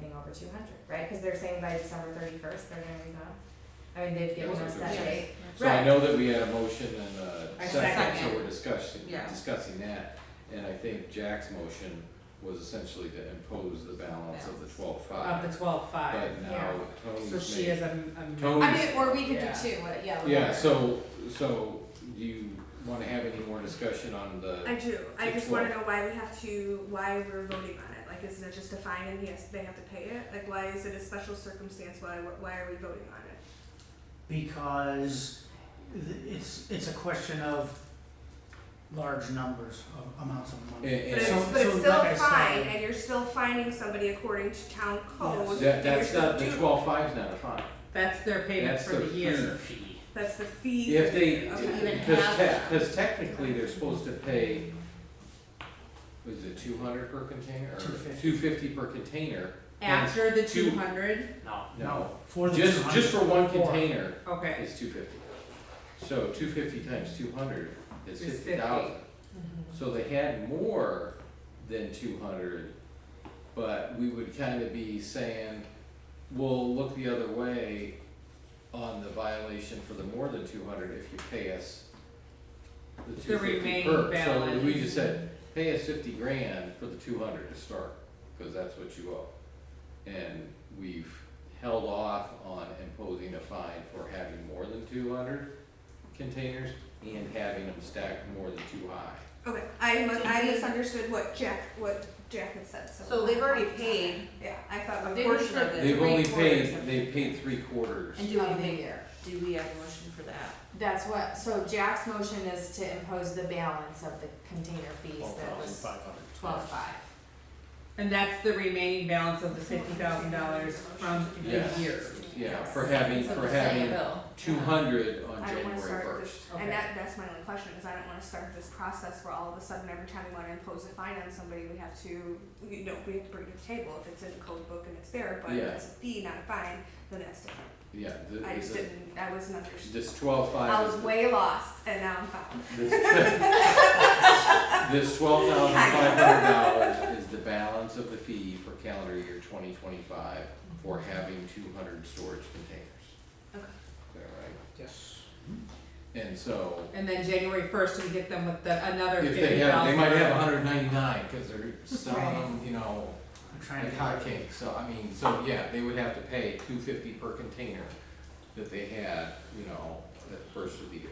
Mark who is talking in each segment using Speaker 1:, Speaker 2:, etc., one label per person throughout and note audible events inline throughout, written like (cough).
Speaker 1: two hundred, right? Cause they're saying by December thirty-first, they're gonna be done. I mean, they've given
Speaker 2: Those are
Speaker 1: us
Speaker 2: good
Speaker 1: that
Speaker 2: dates.
Speaker 1: date.
Speaker 3: So I
Speaker 1: Right.
Speaker 3: know that we had a motion and a
Speaker 2: A
Speaker 3: second, so
Speaker 2: second.
Speaker 3: we're discussing,
Speaker 2: Yeah.
Speaker 3: discussing that. And I think Jack's motion was essentially to impose the balance of the twelve
Speaker 2: Of
Speaker 3: five.
Speaker 2: the twelve five,
Speaker 3: But
Speaker 1: Yeah.
Speaker 3: now
Speaker 2: so
Speaker 3: Tony's
Speaker 2: she
Speaker 3: made,
Speaker 2: is a, a.
Speaker 3: Tony-
Speaker 4: I mean, or we could do
Speaker 2: Yeah.
Speaker 4: two, uh, yeah. like-
Speaker 3: yeah, so, so do you wanna have any more discussion on
Speaker 5: I
Speaker 3: the,
Speaker 5: do. I
Speaker 3: Six
Speaker 5: just
Speaker 3: what?
Speaker 5: want to know why we have to, why we're voting on it. Like, isn't it just a fine and yes, they have to pay it? Like, why is it a special circumstance? Why, why are we voting on it?
Speaker 6: because th- it's, it's a question of large numbers of amounts of
Speaker 3: and,
Speaker 6: money.
Speaker 5: But
Speaker 3: and
Speaker 5: it's,
Speaker 3: so,
Speaker 6: So-
Speaker 5: but it's
Speaker 6: so
Speaker 5: still
Speaker 6: like I
Speaker 5: a
Speaker 6: said-
Speaker 5: fine, and you're still fining somebody according to town code.
Speaker 3: that, that's
Speaker 5: You're
Speaker 3: not, the
Speaker 5: still do-
Speaker 3: twelve five's not a fine.
Speaker 2: That's their payment
Speaker 3: That's
Speaker 2: for the year.
Speaker 6: fee.
Speaker 5: That's the fee.
Speaker 3: If they,
Speaker 5: Okay.
Speaker 2: even
Speaker 3: because
Speaker 2: have
Speaker 3: te-
Speaker 2: that.
Speaker 3: cause technically they're supposed to pay, was it two hundred per container or
Speaker 6: 250.
Speaker 3: two fifty per container?
Speaker 2: After the
Speaker 3: Two-
Speaker 2: two hundred,
Speaker 6: No.
Speaker 3: No.
Speaker 6: For the
Speaker 3: Just, just for one
Speaker 6: Four.
Speaker 3: container
Speaker 2: okay,
Speaker 3: is two fifty. So two fifty times two hundred is
Speaker 2: Is
Speaker 3: fifty thousand. So they had more than two hundred, but we would kinda be saying, we'll look the other way on the violation for the more than two hundred if you pay us the two fifty
Speaker 2: remaining
Speaker 3: per. So we
Speaker 2: balance.
Speaker 3: just said, pay us fifty grand for the two hundred to start, cause that's what you owe. And we've held off on imposing a fine for having more than two hundred containers and having them stacked more than too high.
Speaker 5: Okay, I, mu- I misunderstood what Jack, what Jack had said, so.
Speaker 4: So they've already paid.
Speaker 5: Yeah, I thought a
Speaker 4: They
Speaker 5: portion
Speaker 4: already
Speaker 5: of it.
Speaker 3: They've only
Speaker 4: Three-quarters
Speaker 3: paid,
Speaker 4: of-
Speaker 3: they've paid three quarters.
Speaker 4: And do we
Speaker 1: Of the
Speaker 4: make,
Speaker 1: year.
Speaker 4: do we have a motion for that?
Speaker 1: That's what, so Jack's motion is to impose the balance of the container fees that was twelve-five.
Speaker 2: and that's the remaining balance of the fifty thousand dollars from the year.
Speaker 3: Yes. Yeah, for having, for having two hundred on
Speaker 5: I don't wanna
Speaker 3: January
Speaker 5: start
Speaker 3: first.
Speaker 5: this,
Speaker 2: Okay.
Speaker 5: and that, that's my only question, is I don't wanna start this process where all of a sudden, every time we wanna impose a fine on somebody, we have to, you know, we have to bring it to the table, if it's in the code book and it's there, but if
Speaker 3: Yeah.
Speaker 5: it's a fee, not a fine, then that's different.
Speaker 3: Yeah, th-
Speaker 5: I
Speaker 3: is
Speaker 5: just
Speaker 3: it-
Speaker 5: didn't, I wasn't understanding,
Speaker 3: this twelve
Speaker 5: I
Speaker 3: five
Speaker 5: was way lost, and now I'm found.
Speaker 3: is, this, (laughs) this twelve thousand five hundred dollars is the balance of the fee for calendar year twenty twenty-five for having two hundred storage containers.
Speaker 4: Okay.
Speaker 3: Is that
Speaker 6: Yes.
Speaker 3: right? And so,
Speaker 2: And then January first, we get them with the, another
Speaker 3: if
Speaker 2: fifty thousand.
Speaker 3: they have, they might have hundred ninety-nine, cause they're selling them, you know,
Speaker 6: I'm trying
Speaker 3: Like
Speaker 6: to.
Speaker 3: hotcakes, so I mean, so yeah, they would have to pay two fifty per container that they had, you know, that first of the year.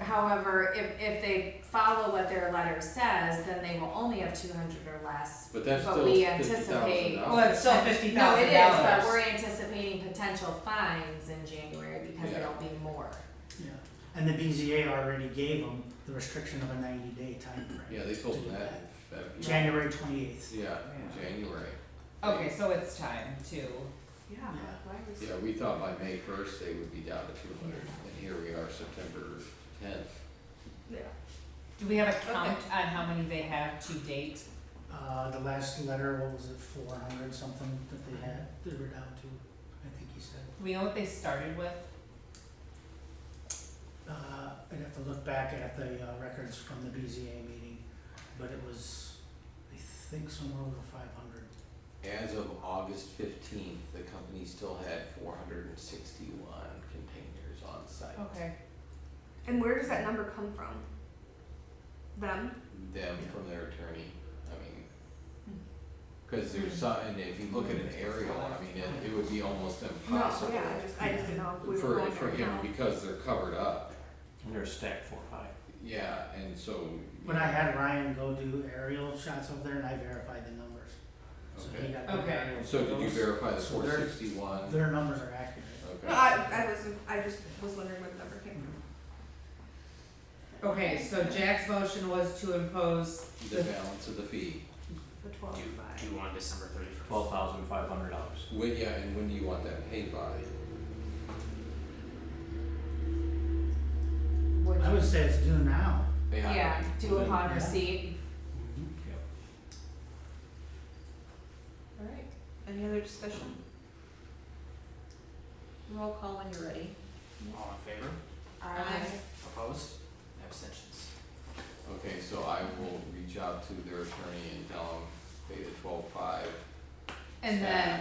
Speaker 1: However, if, if they follow what their letter says, then they will only have two hundred or less.
Speaker 3: But that's
Speaker 1: But
Speaker 3: still
Speaker 1: we
Speaker 3: fifty thousand
Speaker 1: anticipate-
Speaker 2: Well,
Speaker 3: dollars.
Speaker 2: it's still fifty thousand dollars.
Speaker 1: No, it is, but we're anticipating potential fines in January because
Speaker 3: Yeah.
Speaker 1: there'll be more.
Speaker 6: Yeah, and the BZA already gave them the restriction of a ninety day time frame.
Speaker 3: Yeah, they told them that, that-
Speaker 6: January twenty eighth.
Speaker 3: yeah, January.
Speaker 2: Okay, so it's time to,
Speaker 5: Yeah,
Speaker 6: Yeah.
Speaker 5: why was?
Speaker 3: Yeah, we thought by May first they would be down to two hundred, and here we are, September tenth.
Speaker 5: Yeah.
Speaker 2: do we have a count on how many they have to date?
Speaker 6: Uh, the last letter, what was it, four hundred something that they had, they were down to, I think he said.
Speaker 2: Do we know what they started with?
Speaker 6: Uh, I'd have to look back at the uh, records from the BZA meeting, but it was, I think somewhere over five hundred.
Speaker 3: As of August fifteenth, the company still had four hundred and sixty-one containers on site.
Speaker 2: Okay.
Speaker 5: And where does that number come from? Them?
Speaker 3: them from their attorney, I mean,
Speaker 5: Hmm.
Speaker 3: cause there's some, and if you look at an aerial, I mean, it, it would be almost
Speaker 5: No,
Speaker 3: impossible
Speaker 5: yeah, Oh, I just, I just didn't know if we were
Speaker 3: for,
Speaker 5: going
Speaker 3: for
Speaker 5: there or
Speaker 3: him,
Speaker 5: not.
Speaker 3: because they're covered up,
Speaker 7: And they're stacked four high.
Speaker 3: yeah, and so.
Speaker 6: When I had Ryan go do aerial shots over there and I verified the numbers, so he
Speaker 3: Okay,
Speaker 6: got
Speaker 2: Okay.
Speaker 6: the aerial.
Speaker 3: so did you
Speaker 6: photos.
Speaker 3: verify the
Speaker 6: So
Speaker 3: four
Speaker 6: they're-
Speaker 3: sixty-one? Okay.
Speaker 6: Their numbers are accurate.
Speaker 5: No, I, I was, I just was wondering where the number came from.
Speaker 2: Okay, so Jack's motion was to impose
Speaker 3: The balance of the fee,
Speaker 5: The twelve five.
Speaker 7: Due on December thirty-first. Twelve thousand five hundred dollars.
Speaker 3: when, yeah, and when do you want that paid by?
Speaker 1: Would
Speaker 6: I
Speaker 1: you-
Speaker 6: would say it's due now.
Speaker 3: They have-
Speaker 1: Yeah, do
Speaker 3: then-
Speaker 1: upon
Speaker 6: Yeah.
Speaker 1: receipt.
Speaker 7: Yep.
Speaker 4: Alright, any other discussion? Roll call when you're ready.
Speaker 7: All in favor?
Speaker 1: Aye.
Speaker 7: Opposed? Abstentions?
Speaker 3: Okay, so I will reach out to their attorney and tell them pay the twelve-five
Speaker 2: and then